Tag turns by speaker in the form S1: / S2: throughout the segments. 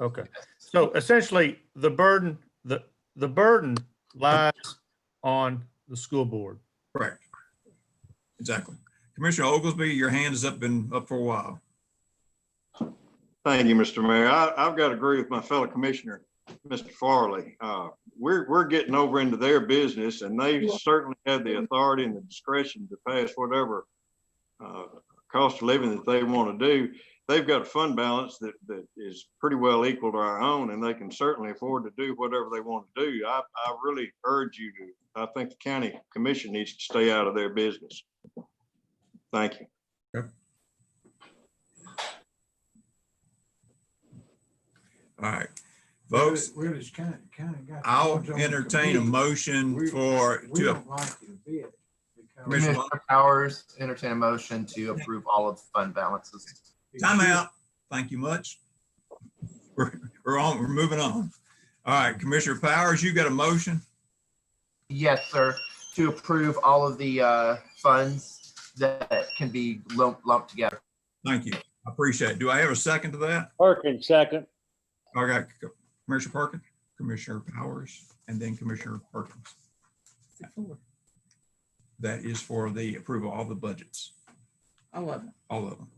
S1: Okay, so essentially, the burden, the, the burden lies on the school board.
S2: Correct. Exactly. Commissioner Oglesby, your hand is up, been up for a while.
S3: Thank you, Mr. Mayor. I, I've got to agree with my fellow commissioner, Mr. Farley. Uh, we're, we're getting over into their business and they certainly have the authority and the discretion to pass whatever uh, cost of living that they want to do. They've got a fund balance that, that is pretty well equal to our own and they can certainly afford to do whatever they want to do. I, I really urge you to, I think the county commission needs to stay out of their business. Thank you.
S2: All right, folks,
S4: Where does county, county got?
S2: I'll entertain a motion for,
S4: We
S2: to,
S4: don't like it a bit. because-
S2: Commissioner-
S5: Commissioner Powers, entertain a motion to approve all of the fund balances.
S2: time out. Thank you much. We're, we're on, we're moving on. All right, Commissioner Powers, you got a motion?
S5: Yes, sir, to approve all of the uh, funds that can be lumped, lumped together.
S2: Thank you. I appreciate it. Do I have a second to that?
S6: Perkins, second.
S2: I got Commissioner Perkins, Commissioner Powers, and then Commissioner Perkins. That is for the approval of all the budgets. All of them. All of them.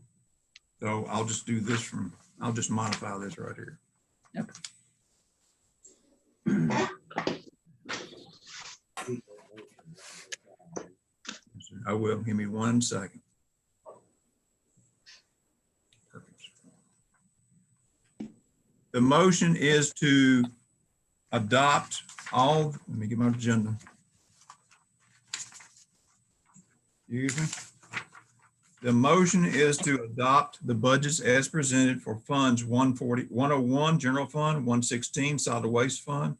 S2: So I'll just do this from, I'll just modify this right here. I will. Give me one second. Perkins. The motion is to adopt all, let me get my agenda. Excuse me. The motion is to adopt the budgets as presented for funds 140, 101, General Fund, 116, Solid Waste Fund,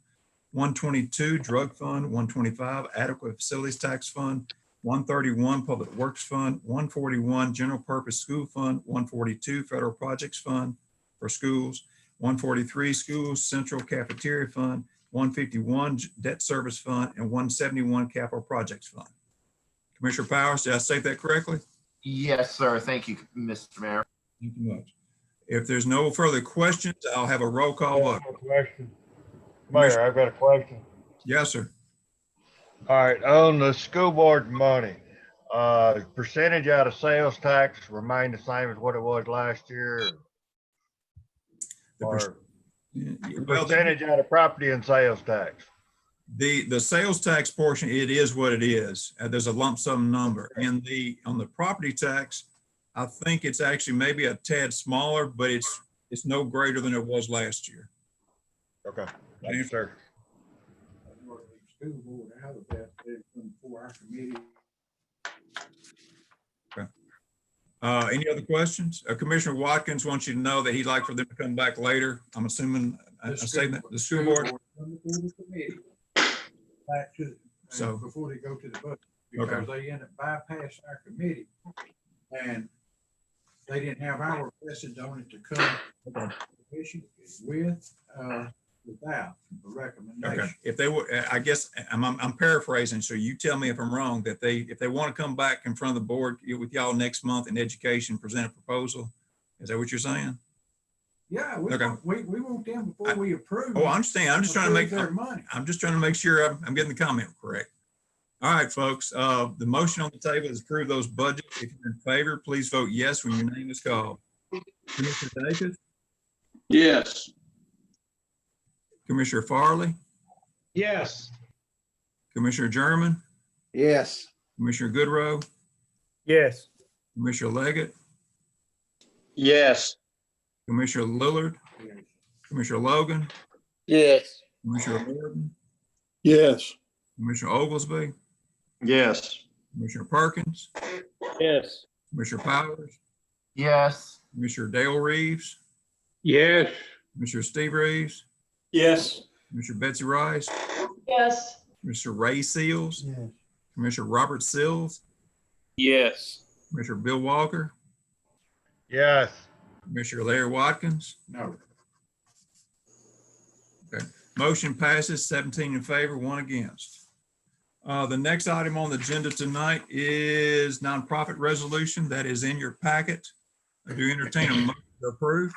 S2: 122, Drug Fund, 125, Adequate Facilities Tax Fund, 131, Public Works Fund, 141, General Purpose School Fund, 142, Federal Projects Fund for Schools, 143 Schools Central Cafeteria Fund, 151 J- Debt Service Fund, and 171 Capital Projects Fund. Commissioner Powers, did I say that correctly?
S5: Yes, sir, thank you, Mr. Mayor.
S2: Thank you much. If there's no further questions, I'll have a roll call vote.
S6: Question. Mayor, I've got a question.
S2: Yes, sir.
S6: All right, on the school board money, uh, percentage out of sales tax remained the same as what it was last year?
S2: The per-
S6: Or
S2: well,
S6: percentage out of property and sales tax?
S2: The, the sales tax portion, it is what it is. Uh, There's a lump sum number. And the, on the property tax, I think it's actually maybe a tad smaller, but it's, it's no greater than it was last year.
S6: Okay, thank you, sir.
S4: School board out of that, they're from for our committee.
S2: Uh, any other questions? Uh, Commissioner Watkins wants you to know that he'd like for them to come back later. I'm assuming, I I say that, the school board.
S4: from the board of committee Back to, and
S2: So-
S4: before they go to the budget,
S2: Okay.
S4: because they end up bypassing our committee. And they didn't have our message on it to come. Issue with, uh, without a
S2: Okay,
S4: recommendation.
S2: if they were, I guess, I'm, I'm I'm paraphrasing, so you tell me if I'm wrong, that they, if they want to come back in front of the board with y'all next month in education, present a proposal. Is that what you're saying?
S4: Yeah, we,
S2: Okay.
S4: want- we, we want them before we approve.
S2: Oh, I understand. I'm just trying to make,
S4: approve Their money.
S2: I'm just trying to make sure I'm, I'm getting the comment correct. All right, folks, uh, the motion on the table is approve those budgets. If you're in favor, please vote yes when your name is called. Commissioner Davis,
S3: Yes.
S2: Commissioner Farley?
S6: Yes.
S2: Commissioner German,
S7: Yes,
S2: Commissioner Goodrow,
S1: Yes.
S2: Commissioner Leggett,
S3: Yes.
S2: Commissioner Lillard, Commissioner Logan,
S6: Yes.
S2: Commissioner Morton,
S7: yes.
S2: Commissioner Oglesby,
S3: Yes.
S2: Commissioner Perkins,
S6: Yes.
S2: Commissioner Powers,
S5: Yes,
S2: Commissioner Dale Reeves,
S6: Yes.
S2: Commissioner Steve Reeves,
S7: Yes.
S2: Commissioner Betsy Rice,
S8: Yes.
S2: Mr. Ray Seals,
S4: Yes.
S2: Commissioner Robert Sills,
S6: Yes.
S2: Commissioner Bill Walker,
S6: Yes.
S2: Commissioner Larry Watkins.
S4: No.
S2: Motion passes seventeen in favor, one against. Uh, the next item on the agenda tonight is nonprofit resolution that is in your packet. I do entertain a motion to approve.